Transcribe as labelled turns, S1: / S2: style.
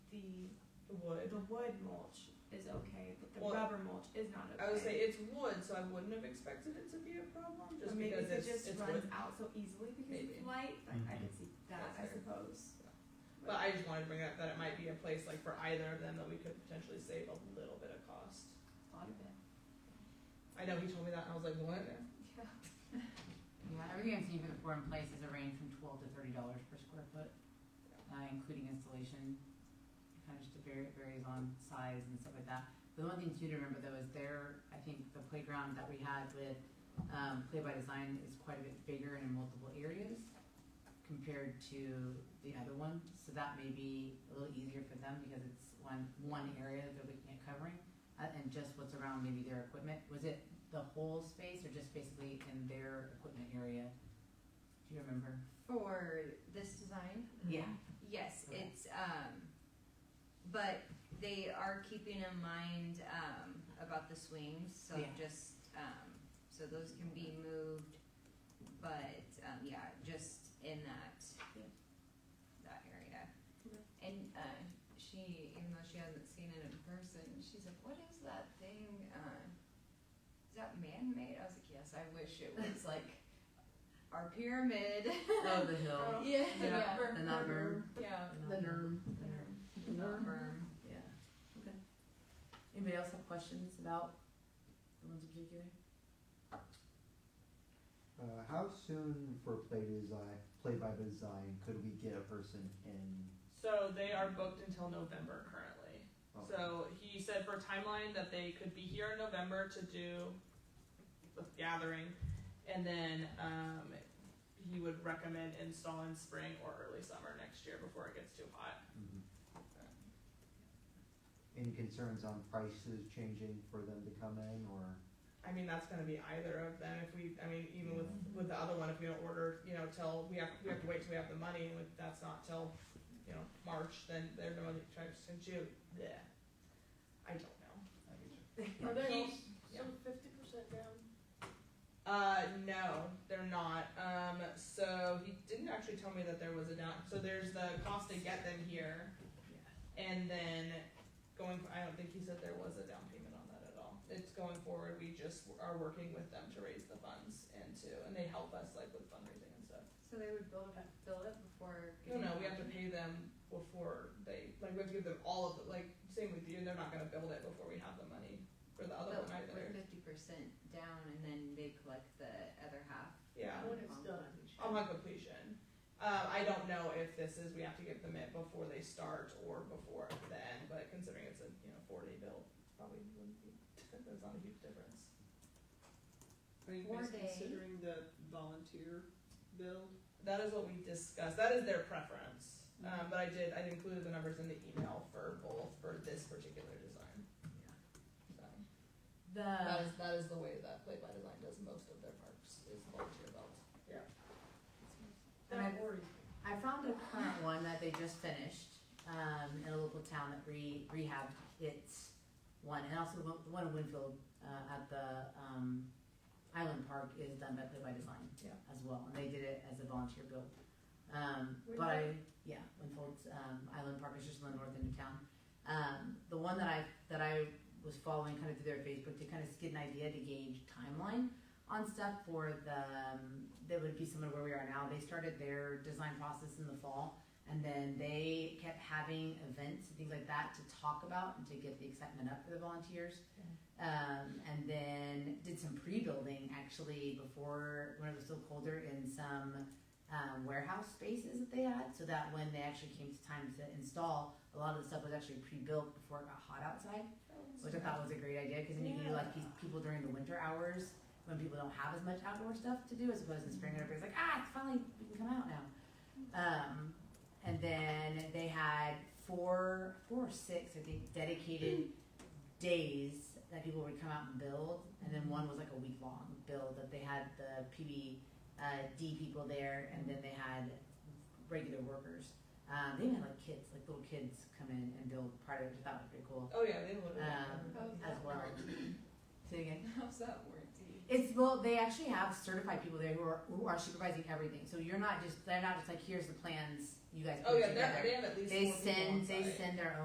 S1: the wood.
S2: The wood mulch is okay, but the
S1: Well,
S2: rubber mulch is not okay.
S1: I would say it's wood, so I wouldn't have expected it to be a problem
S2: or
S1: just
S2: maybe
S1: because
S2: it
S1: it's,
S2: just
S1: it's
S2: runs
S1: wood.
S2: out so easily because
S1: Maybe. Mhm.
S2: it's light. Like, I can see that,
S1: That's
S2: I
S1: fair.
S2: suppose.
S1: But I just wanted to bring up that it might be a place like for either of them that we could potentially save a little bit of cost.
S2: a lot of it.
S1: I know he told me that, and I was like, what?
S2: Yeah.
S3: Yeah, everything I've seen for the four in place is a range from twelve to thirty dollars per square foot, uh, including installation. Kind of just varies, varies on size and stuff like that. The one thing too to remember though is there, I think the playground that we had with, um, Play by Design is quite a bit bigger and in multiple areas compared to the other one, so that may be a little easier for them because it's one, one area that they're looking at covering. Uh, and just what's around maybe their equipment, was it the whole space or just basically in their equipment area? Do you remember?
S4: For this design?
S3: Yeah.
S4: Yes,
S3: Okay.
S4: it's, um, but they are keeping in mind, um, about the swings, so
S3: Yeah.
S4: just, um, so those can be moved, but, um, yeah, just in that,
S2: Yeah.
S4: that area.
S2: Okay.
S4: And, uh, she, even though she hasn't seen it in person, she's like, what is that thing, uh, is that man-made? I was like, yes, I wish it was like our pyramid.
S3: Oh, the hill.
S4: Yeah,
S3: Yeah.
S4: yeah,
S3: And that berm.
S4: yeah. Um,
S5: The NERM.
S4: The berm.
S3: Yeah. Okay. Anybody else have questions about the ones in particular?
S5: Uh, how soon for play design, play by design, could we get a person in?
S1: So they are booked until November currently.
S5: oh,
S1: So he said for timeline that they could be here in November to do the gathering, and then um, he would recommend install in spring or early summer next year before it gets too hot.
S5: mhm. Any concerns on prices changing for them to come in, or
S1: I mean that's going to be either of them. If we, I mean, even with with the other one, if we don't order, you know, till we have we have to wait till we have the money, and if that's not till, you know, March, then they're going to try to June. Yeah, I don't know.
S5: I get you.
S6: Are they
S1: He-
S6: all
S1: yeah.
S6: so fifty percent down?
S1: Uh, no, they're not. Um, so he didn't actually tell me that there was a down. So there's the cost to get them here, and then going. I don't think he said there was a down payment on that at all. It's going forward. We just are working with them to raise the funds and to, and they help us like with fundraising and stuff.
S4: So they would build up, build up before.
S1: No, no, we have to pay them before they like. We have to give them all of the like. Same with you. They're not gonna build it before we have the money for the other
S4: But
S1: one
S4: we're
S1: either.
S4: fifty percent down and then they collect the other half.
S1: Yeah.
S4: Um,
S6: When it's
S4: on
S6: done.
S4: completion.
S1: On completion. Um, I don't know if this is, we have to give them it before they start or before the end, but considering it's a, you know, four day bill, probably wouldn't be, there's not a huge difference.
S7: Are you
S4: Or
S7: guys
S4: they-
S7: considering the volunteer build?
S1: That is what we discussed, that is their preference,
S7: Mm-hmm.
S1: um, but I did, I included the numbers in the email for both, for this particular design. So, that
S3: The,
S1: is, that is the way that Play by Design does most of their parks, is volunteer built.
S3: And
S6: That
S3: I-
S6: worries
S3: I found a current one that they just finished, um, in a local town that re- rehabbed its one, and also the one in Winfield, uh, at the, um, Island Park is done by Play by Design.
S1: Yeah.
S3: As well, and they did it as a volunteer build. Um,
S6: Where'd
S3: but I, yeah, Winfield's, um, Island Park is just on the north end of town. Um, the one that I, that I was following kind of through their Facebook to kind of get an idea to gauge timeline on stuff for the, um, that would be similar to where we are now. They started their design process in the fall and then they kept having events and things like that to talk about and to get the excitement up for the volunteers. Um, and then did some pre-building actually before when it was still colder in some um, warehouse spaces that they had, so that when they actually came to time to install, a lot of the stuff was actually pre-built before it got hot outside, which I thought was a great idea because then you can do like these people during the winter hours when people don't have as much outdoor stuff to do as opposed to spring when everybody's like, ah, it's finally we can come out now. Um, and then they had four, four or six, I think, dedicated days that people would come out and build, and then one was like a week long build that they had the PB uh, D people there, and then they had regular workers. Um, they even had like kids, like little kids, come in and build part of it. which I thought was pretty cool
S1: Oh, yeah, they literally.
S3: Um,
S4: How's
S3: as
S4: that
S3: well.
S4: warranty?
S3: Say again.
S4: How's that warranty?
S3: It's well, they actually have certified people there who are who are supervising everything. So you're not just they're not just like here's the plans you guys put
S1: Oh, yeah, they're-
S3: together.
S1: they have at least
S3: They
S1: four people on
S3: send they
S1: site.
S3: send their own.